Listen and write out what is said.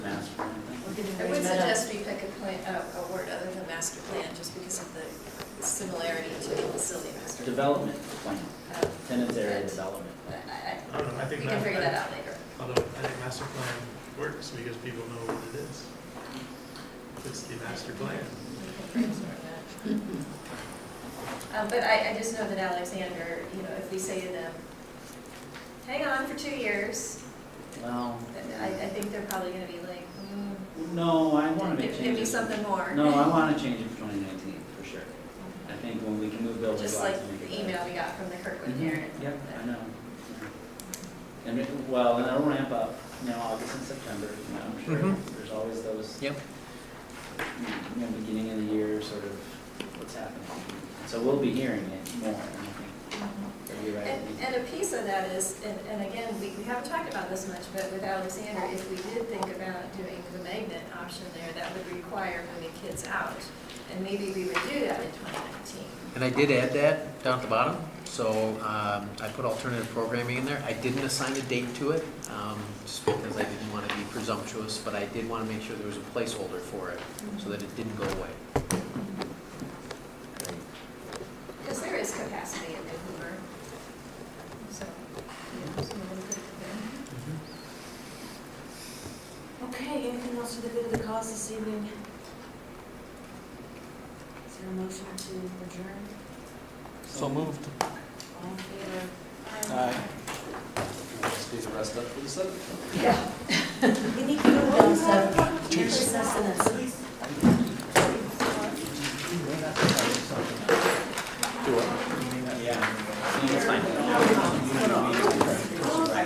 I would suggest we pick a plan, a a word other than master plan, just because of the similarity to the facility master. Development plan, Uh, tenant area but development. I- I- I don't know, Um, I We think. can ma- figure that out later. Although, I think master plan works because people know what it is. It's the master plan. We can brainstorm that. Um, But I, I just know that Alexander, you know, if we say to them, hang on for two years, Well, I, I think they're probably gonna be like, hmm. no, I want to make Give give me changes. something more. No, I want to change it for 2019, for sure. I think when we can move buildings. Just we'll have like to make it the better. email we got from the Kirkwood Mhm. parent. Yep, I know. I know. And, it- well, and it'll ramp up, you know, August and September, you know, I'm sure, Mhm. there's always those. Yep. You know, beginning of the year, sort of, what's happening. So we'll be hearing it more, and I Mhm. think, you're right. And, and a piece of that is, and, and again, we, we haven't talked about this much, but with Alexander, if we did think about doing the magnet option there, that would require moving kids out. And maybe we would do that in twenty nineteen. And I did add that down at the bottom, so um, I put alternative programming in there. I didn't assign a date to it, um, just because I didn't want to be presumptuous, but I did want to make sure there was a placeholder for it, so that it didn't go away. Because there is capacity in Vancouver. So, yeah, so we'll put it there. Okay, anything else for the good of the cause this evening? Is there a motion to adjourn? So moved. All in favor? We need to go down stuff. Cheers. Yeah, I mean, it's fine.